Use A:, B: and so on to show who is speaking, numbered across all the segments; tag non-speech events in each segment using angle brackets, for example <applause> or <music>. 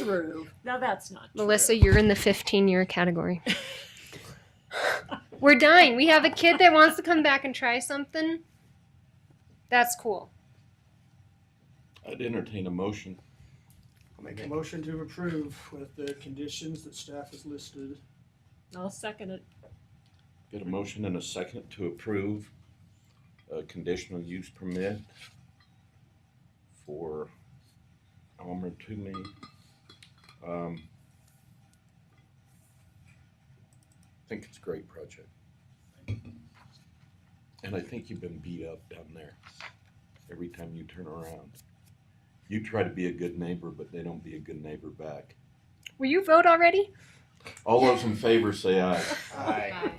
A: true. Now that's not true.
B: Melissa, you're in the 15 year category. We're dying. We have a kid that wants to come back and try something. That's cool.
C: I'd entertain a motion.
D: I'll make a motion to approve with the conditions that staff has listed.
A: I'll second it.
C: Get a motion and a second to approve a conditional use permit for Elmer Toomey. Um, I think it's a great project. And I think you've been beat up down there every time you turn around. You try to be a good neighbor, but they don't be a good neighbor back.
B: Will you vote already?
C: All those in favor say aye.
E: Aye.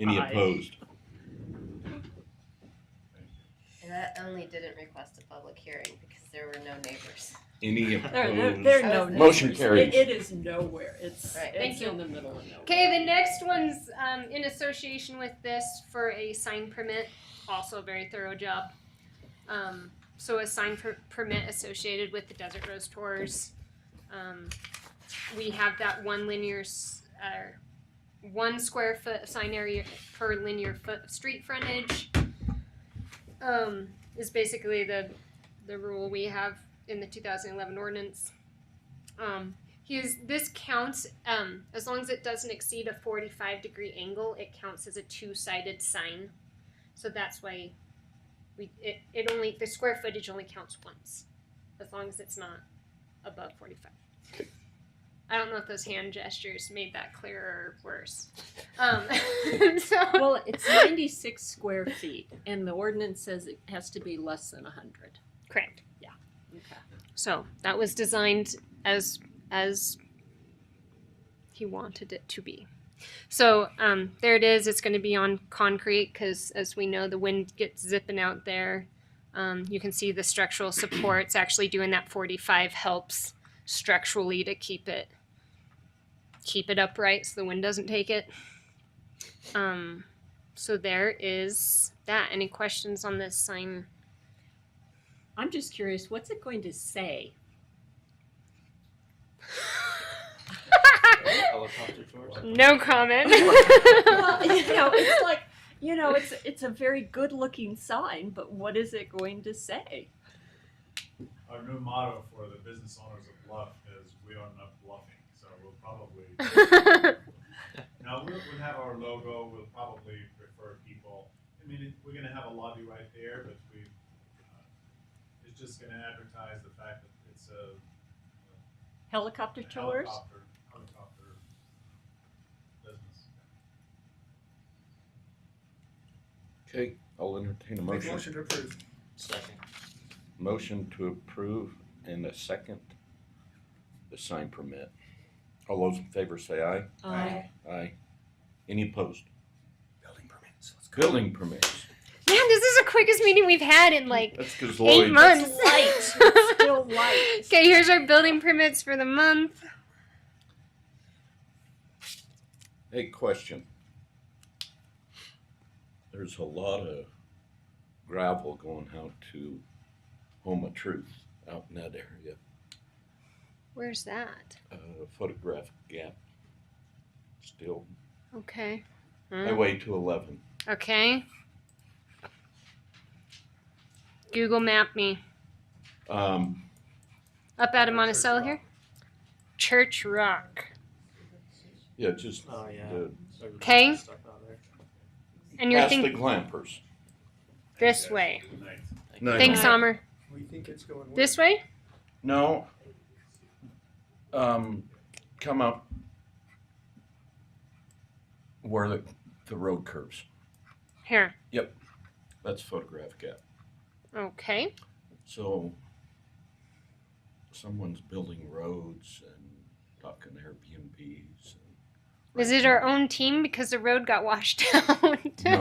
C: Any
A: Aye.
C: opposed?
E: And that only didn't request a public hearing because there were no neighbors.
C: Any
A: There, there,
C: opposed?
A: there are no
E: Opposed.
A: neighbors.
C: Motion
A: It,
C: carries.
A: it is nowhere. It's,
E: Right.
A: it's
B: Thank you.
A: in the middle of nowhere.
B: Okay, the next one's um, in association with this for a sign permit. Also, a very thorough job. Um, so, a sign per- permit associated with the Desert Rose Tours. Um, we have that one linear, s- uh, one square foot of sign area per linear foot of street frontage. Um, is basically the the rule we have in the 2011 ordinance. Um, he is this counts um, as long as it doesn't exceed a 45 degree angle it counts as a two-sided sign so that's why we it, it only the square footage only counts once as long as it's not above 45 i don't know if those hand gestures made that clearer or worse um, <laughs> so
A: Well, it's ninety-six square feet and the ordinance says it has to be less than hundred.
B: correct
A: Okay.
B: so that was designed as as he wanted it to be so um, there it is it's going to be on concrete because as we know the wind gets zipping out there um, you can see the structural supports actually doing that 45 helps structurally to keep it keep it upright so the wind doesn't take it um, so there is that any questions on this sign <laughs>
A: I'm just curious, what's it going to say?
F: helicopter tours.
B: no comment <laughs>
A: Well, <laughs> you know, it's like, you know, it's, it's a very good-looking sign, but what is it going to say?
G: Our new motto for the business owners of Bluff is we are not bluffing. So we'll
B: <laughs>
G: probably now we'll, we'll have our logo. We'll probably refer people. I mean, it, we're going to have a lobby right there, but we uh, it's just going to advertise the fact that it's a,
A: Helicopter
G: a
A: tours?
G: helicopter helicopter uh, business.
C: Okay, I'll entertain a
D: Make
C: motion.
D: a motion to approve.
F: Second.
C: Motion to approve and a second, the sign permit. All those in favor say aye.
A: Aye.
C: Aye. Any opposed?
D: Building permits. Let's go.
C: Building permits.
B: Man, this is the quickest meeting we've had in like
C: That's because
B: eight
C: Lloyd.
B: months.
A: <laughs> Light,
B: <laughs>
A: it's still light.
B: okay, here's our building permits for the month.
C: Hey, question. There's a lot of gravel going out to Home of Truth out in that area.
B: Where's that?
C: Uh, photograph gap. Still
B: Okay. Hmm.
C: highway to eleven.
B: Okay. Google map me.
C: Um,
B: Up out of Monticello here? Church Rock.
C: yeah, just
F: Oh, yeah.
C: the
B: Okay.
F: Stuck out there.
B: And you're
C: past
B: thinking
C: the glampers.
B: this way.
G: Good night.
C: No,
B: Thanks, Summer.
D: We think it's going.
B: This
D: well.
B: way?
C: No. Um, come up where the, the road curves.
B: Here.
C: That's photograph gap.
B: Okay.
C: So someone's building roads and talking Airbnbs. And
B: Is it our own team because the road got washed <laughs> out?
C: No.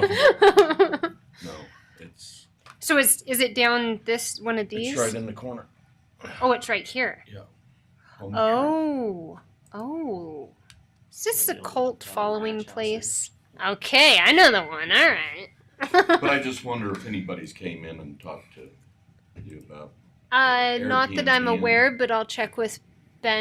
C: No, it's
B: <laughs> so is is it down this one of these?
C: it's right in the corner.
B: Oh, it's right here.
C: Home of
B: Oh, oh. Is this a
F: Maybe a
B: cult
F: little
B: following
F: ranch house
B: place? Okay, I know the one. All
C: Truth. But
B: right.
C: I just wonder if anybody's came in and talked to you about.
B: uh, not that I'm
C: Airbnb.
B: aware, but I'll check with